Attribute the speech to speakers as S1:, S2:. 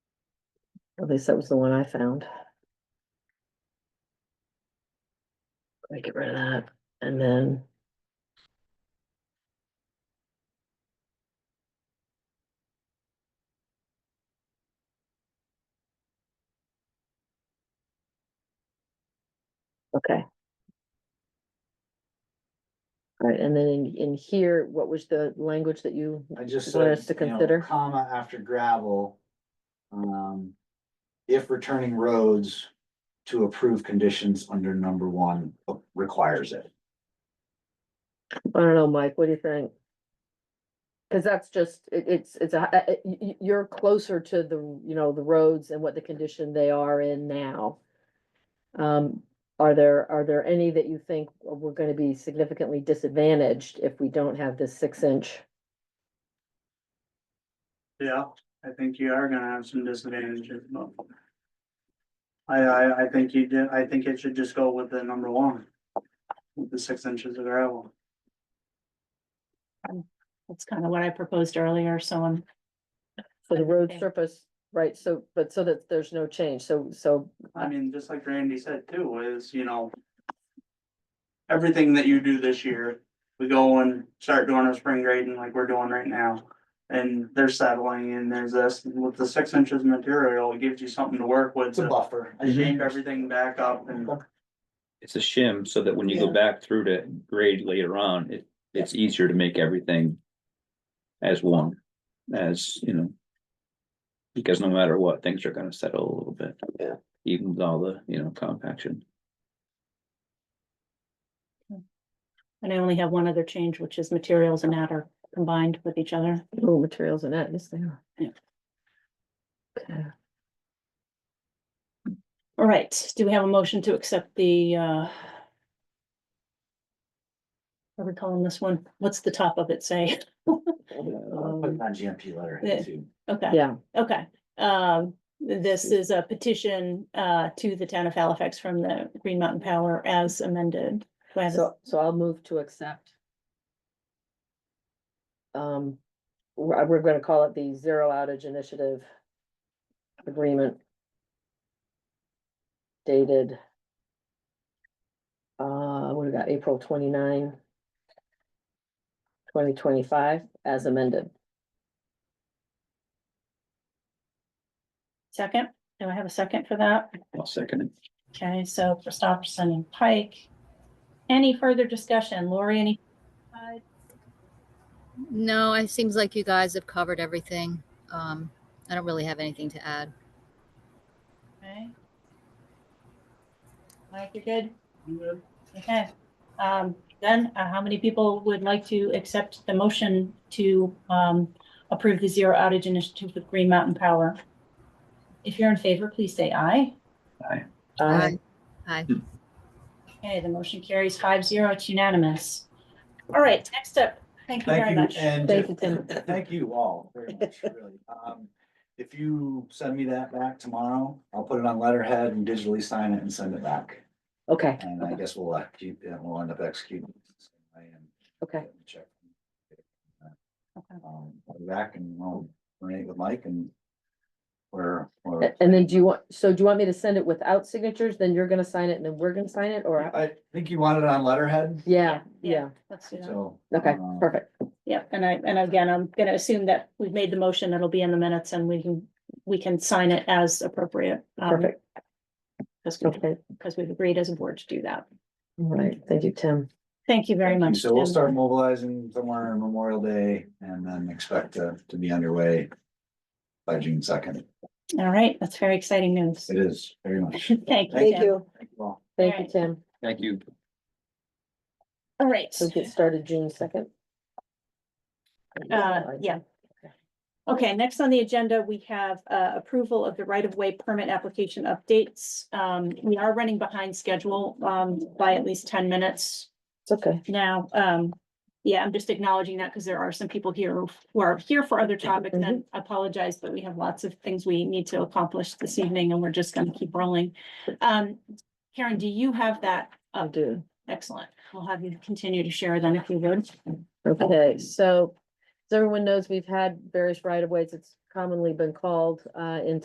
S1: At least that was the one I found. I get rid of that and then. Okay. All right, and then in, in here, what was the language that you,
S2: I just
S1: Want
S2: said,
S1: us to
S2: you know,
S1: consider?
S2: comma after gravel. Um, if returning roads to approved conditions under number one requires it.
S1: I don't know, Mike, what do you think? Cause that's just, it, it's, it's a, uh, uh, y- y- you're closer to the, you know, the roads and what the condition they are in now. Um, are there, are there any that you think we're gonna be significantly disadvantaged if we don't have this six inch?
S3: Yeah, I think you are gonna have some disadvantages, but. I, I, I think you did, I think it should just go with the number one. With the six inches of gravel.
S4: That's kind of what I proposed earlier, so I'm,
S1: So the road
S4: Okay.
S1: surface, right, so, but so that there's no change, so, so,
S3: I mean, just like Randy said too, is, you know. Everything that you do this year, we go and start doing our spring grading like we're doing right now. And there's settling and there's this, with the six inches of material, it gives you something to work with
S2: It's a
S3: to
S2: buffer.
S3: shape everything back
S1: Um,
S3: up and.
S5: It's a shim so that when you go
S4: Yeah.
S5: back through to grade later on, it, it's easier to make everything as one, as, you know. Because no matter what, things are gonna settle a little bit.
S1: Yeah.
S5: Even with all the, you know, compaction.
S4: and I only have one other change, which is materials and that are combined with each other.
S1: oh, materials and that, yes, they are.
S4: Yeah.
S1: Okay,
S4: All right, do we have a motion to accept the, uh, what are we calling this one? What's the top of it say?
S5: Uh,
S2: I'll Put that GMP letter
S4: Yeah.
S2: in too.
S4: Okay,
S1: yeah,
S4: okay. Um, this is a petition, uh, to the town of Halifax from the Green Mountain Power as amended. Do I have a-
S1: so, so I'll move to accept. Um, we're, we're gonna call it the Zero Outage Initiative Agreement. Dated. Uh, what do we got, April 29, 2025, as amended.
S4: Second, do I have a second for that?
S5: I'll second it.
S4: Okay, so Christopherson and Pike. Any further discussion? Lori, any?
S6: No, it seems like you guys have covered everything. Um, I don't really have anything to add.
S4: Okay. Mike, you're good? Okay. Um, then, uh, how many people would like to accept the motion to, um, approve the zero outage initiative with Green Mountain Power? If you're in favor, please say aye.
S1: Um,
S6: Aye. Aye.
S4: Okay, the motion carries five zero. It's unanimous. All right, next up. Thank you
S2: Thank
S4: very
S2: you,
S4: much.
S2: and
S1: Thank you, Tim.
S2: thank you all very much, really. Um, if you send me that back tomorrow, I'll put it on letterhead and digitally sign it and send it back.
S1: okay,
S2: And I guess we'll, uh, keep- yeah, we'll end up executing. it the same way and
S1: okay,
S2: check.
S4: Okay.
S2: Um, I'll be back and I'll coordinate with Mike and we're, we're-
S1: A- and then do you want, so do you want me to send it without signatures, then you're gonna sign it and then we're gonna sign it, or?
S2: I think you wanted it on letterhead,
S1: Yeah, yeah,
S4: Yeah, Let's do that.
S2: so.
S1: okay,
S2: um,
S1: perfect,
S4: Yep, and I, and again, I'm gonna assume that we've made the motion, it'll be in the minutes and we can, we can sign it as appropriate. um,
S1: perfect,
S4: Because,
S1: okay,
S4: we've agreed as a board to do that.
S1: all right, thank you, Tim.
S4: Thank you very
S2: Thank you.
S4: much.
S2: So we'll
S4: Tim.
S2: start mobilizing somewhere on Memorial Day and then expect to, to be underway by June second.
S4: All right, that's very exciting news.
S2: It is very much.
S4: Thank you.
S2: Thank
S4: Tim.
S2: Thank you all.
S1: Thank you, Tim.
S5: Thank you.
S4: All right,
S1: So get started June second.
S4: uh, yeah. Okay, next on the agenda, we have uh, approval of the right-of-way permit application updates. Um, We are running behind schedule um, by at least ten minutes.
S1: It's okay.
S4: now, um, yeah, I'm just acknowledging that because there are some people here who are here for other topics and I apologize, but we have lots of things we need to accomplish this evening and we're just gonna keep rolling. Um, Karen, do you have that?
S1: I'll do.
S4: Excellent. We'll have you continue to share then if you would.
S1: Okay, so as everyone knows, we've had various right of ways. It's commonly been called uh in